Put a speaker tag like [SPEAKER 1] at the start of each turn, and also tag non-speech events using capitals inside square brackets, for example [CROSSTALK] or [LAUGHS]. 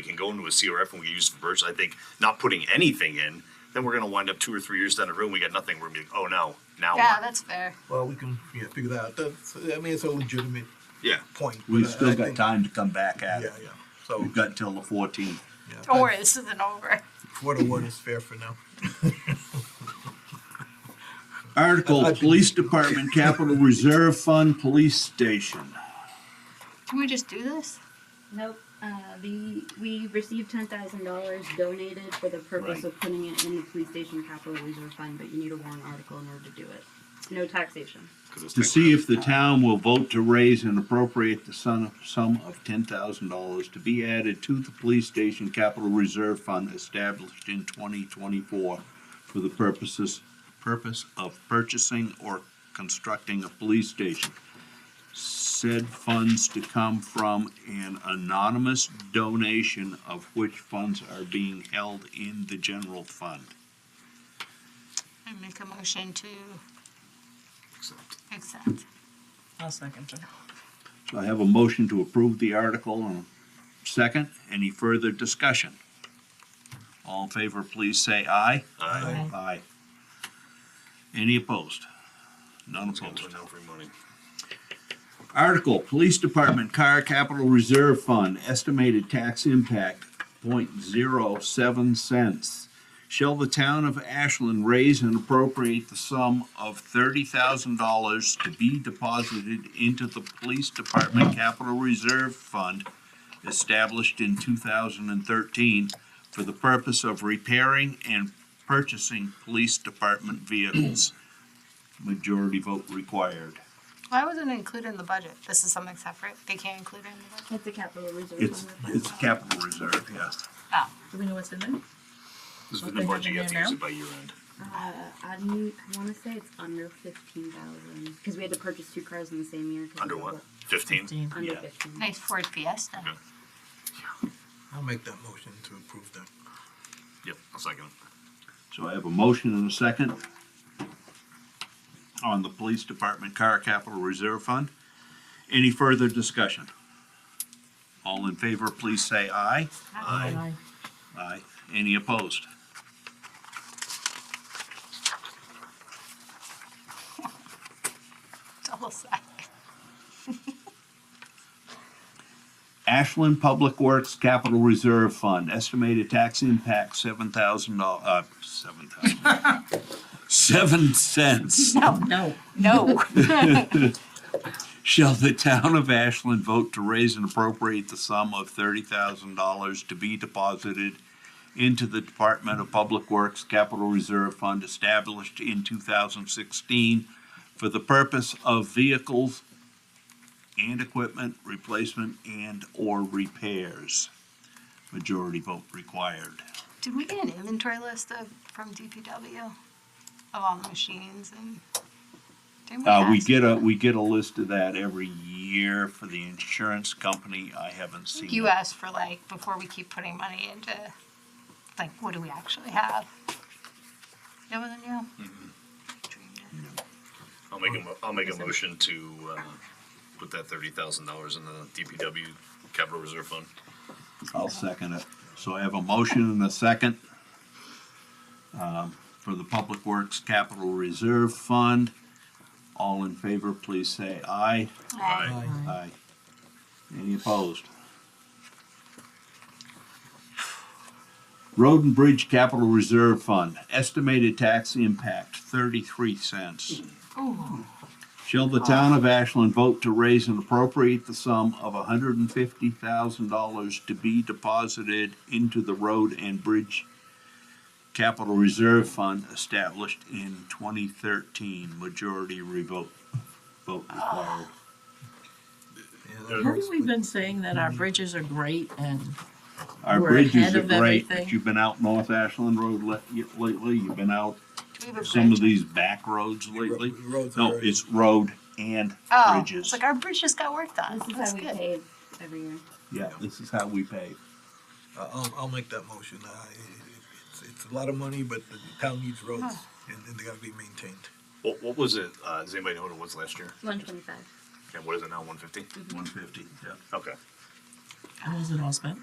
[SPEAKER 1] go into a CRF and we use it for purchase, I think not putting anything in, then we're gonna wind up two or three years down the road, we got nothing, we're gonna be, like, oh no, now
[SPEAKER 2] Yeah,
[SPEAKER 1] what?
[SPEAKER 2] that's fair.
[SPEAKER 3] Well, we can, yeah, figure that out. That's, I mean, it's a legitimate
[SPEAKER 1] Yeah,
[SPEAKER 3] point.
[SPEAKER 4] We've
[SPEAKER 3] but I-
[SPEAKER 4] still
[SPEAKER 3] I
[SPEAKER 4] got
[SPEAKER 3] think-
[SPEAKER 4] time to come back
[SPEAKER 3] Yeah,
[SPEAKER 4] at it.
[SPEAKER 3] yeah. So,
[SPEAKER 4] We've got until the fourteenth.
[SPEAKER 3] yeah,
[SPEAKER 2] Don't worry, this isn't over.
[SPEAKER 3] four to one is fair for now.
[SPEAKER 4] Article, Police Department Capital Reserve Fund Police Station.
[SPEAKER 2] Can we just do this?
[SPEAKER 5] Nope. Uh, the we received ten thousand dollars donated for the
[SPEAKER 4] Right.
[SPEAKER 5] purpose of putting it in the police station capital reserve fund, but you need a warrant article in order to do it. No taxation.
[SPEAKER 1] cause it's.
[SPEAKER 4] To see if the town will vote to raise and appropriate the sum, sum of ten thousand dollars to be added to the police station capital reserve fund established in twenty twenty-four for the purposes, purpose of purchasing or constructing a police station. Said funds to come from an anonymous donation of which funds are being held in the general fund.
[SPEAKER 2] I make a motion to
[SPEAKER 1] Accept.
[SPEAKER 2] accept.
[SPEAKER 6] I'll second it.
[SPEAKER 4] So I have a motion to approve the article and a second. Any further discussion? All in favor, please say aye.
[SPEAKER 1] Aye.
[SPEAKER 4] Aye. Any opposed? None
[SPEAKER 1] It's gonna
[SPEAKER 4] opposed.
[SPEAKER 1] turn down for money.
[SPEAKER 4] Article, Police Department Car Capital Reserve Fund, estimated tax impact, 0.07 cents. Shall the town of Ashland raise and appropriate the sum of thirty thousand dollars to be deposited into the Police Department Capital Reserve Fund established in two thousand and thirteen for the purpose of repairing and purchasing police department vehicles? Majority vote required.
[SPEAKER 2] Why wasn't it included in the budget? This is something separate. They can't include it in the budget.
[SPEAKER 5] It's a capital reserve
[SPEAKER 4] It's,
[SPEAKER 5] fund.
[SPEAKER 4] it's capital reserve, yeah.
[SPEAKER 2] Oh,
[SPEAKER 6] Do we know what's in there?
[SPEAKER 1] This is
[SPEAKER 6] What
[SPEAKER 1] in the
[SPEAKER 6] they have
[SPEAKER 1] budget,
[SPEAKER 6] in
[SPEAKER 1] you have to
[SPEAKER 6] there
[SPEAKER 1] use
[SPEAKER 6] now?
[SPEAKER 1] it by year end.
[SPEAKER 5] Uh, I, need- I want to say it's under fifteen thousand because we had to purchase two cars in the same year. 'cause
[SPEAKER 1] Under
[SPEAKER 5] of
[SPEAKER 1] what?
[SPEAKER 5] the-
[SPEAKER 1] Fifteen?
[SPEAKER 5] Under
[SPEAKER 4] Yeah.
[SPEAKER 5] fifteen.
[SPEAKER 2] nice Ford Fiesta.
[SPEAKER 1] Yeah.
[SPEAKER 3] I'll make that motion to approve that.
[SPEAKER 1] Yep, I'll second.
[SPEAKER 4] So I have a motion and a second on the Police Department Car Capital Reserve Fund. Any further discussion? All in favor, please say aye.
[SPEAKER 1] Aye.
[SPEAKER 4] Aye. Any opposed?
[SPEAKER 2] [LAUGHS] Double side.
[SPEAKER 4] Ashland Public Works Capital Reserve Fund, estimated tax impact seven thousand dollars. uh, seven thousand.
[SPEAKER 6] [LAUGHS]
[SPEAKER 4] Seven cents.
[SPEAKER 6] No.
[SPEAKER 2] No.
[SPEAKER 4] [LAUGHS] Shall the town of Ashland vote to raise and appropriate the sum of thirty thousand dollars to be deposited into the Department of Public Works Capital Reserve Fund established in two thousand sixteen for the purpose of vehicles and equipment replacement and/or repairs? Majority vote required.
[SPEAKER 2] Did we get an inventory list of, from DPW of all the machines and? didn't
[SPEAKER 4] Uh, we
[SPEAKER 2] ask?
[SPEAKER 4] get a, we get a list of that every year for the insurance company. I haven't seen.
[SPEAKER 2] You
[SPEAKER 4] it.
[SPEAKER 2] asked for like, before we keep putting money into, like, what do we actually have? That wasn't you?
[SPEAKER 4] Mm-hmm.
[SPEAKER 2] Dreamed it.
[SPEAKER 1] I'll make a, mo- I'll make a motion to, uh, put that thirty thousand dollars in the DPW capital reserve fund.
[SPEAKER 4] I'll second it. So I have a motion and a second um, for the Public Works Capital Reserve Fund. All in favor, please say aye.
[SPEAKER 2] Aye.
[SPEAKER 4] Aye. Any opposed? Road and Bridge Capital Reserve Fund, estimated tax impact thirty-three cents.
[SPEAKER 2] Ooh,
[SPEAKER 4] Shall the town of Ashland vote to raise and appropriate the sum of hundred and fifty thousand dollars to be deposited into the road and bridge capital reserve fund established in twenty thirteen? Majority revote, vote required.
[SPEAKER 3] Yeah, that works
[SPEAKER 6] Haven't we
[SPEAKER 3] with-
[SPEAKER 6] been saying that our bridges are great and
[SPEAKER 4] Our
[SPEAKER 6] We're
[SPEAKER 4] bridges
[SPEAKER 6] ahead
[SPEAKER 4] are
[SPEAKER 6] of
[SPEAKER 4] great, but
[SPEAKER 6] everything.
[SPEAKER 4] you've been out North Ashland Road le- lately, you've been out
[SPEAKER 2] do we have a
[SPEAKER 4] some of
[SPEAKER 2] bridge?
[SPEAKER 4] these back roads lately.
[SPEAKER 3] roads
[SPEAKER 4] No,
[SPEAKER 3] are-
[SPEAKER 4] it's road and
[SPEAKER 2] Oh, it's
[SPEAKER 4] bridges.
[SPEAKER 2] like our bridge just got worked on.
[SPEAKER 5] This is
[SPEAKER 2] That's
[SPEAKER 5] how we
[SPEAKER 2] good.
[SPEAKER 5] pay every year.
[SPEAKER 4] Yeah, this is how we pay.
[SPEAKER 3] Uh, I'll, I'll make that motion. Uh, it's, it's a lot of money, but the town needs roads and, and they gotta be maintained.
[SPEAKER 1] What, what was it, uh, does anybody know what it was last year?
[SPEAKER 5] One twenty-five.
[SPEAKER 1] And what is it now, one fifty?
[SPEAKER 4] One fifty, yeah.
[SPEAKER 1] Okay.
[SPEAKER 6] how was it all spent?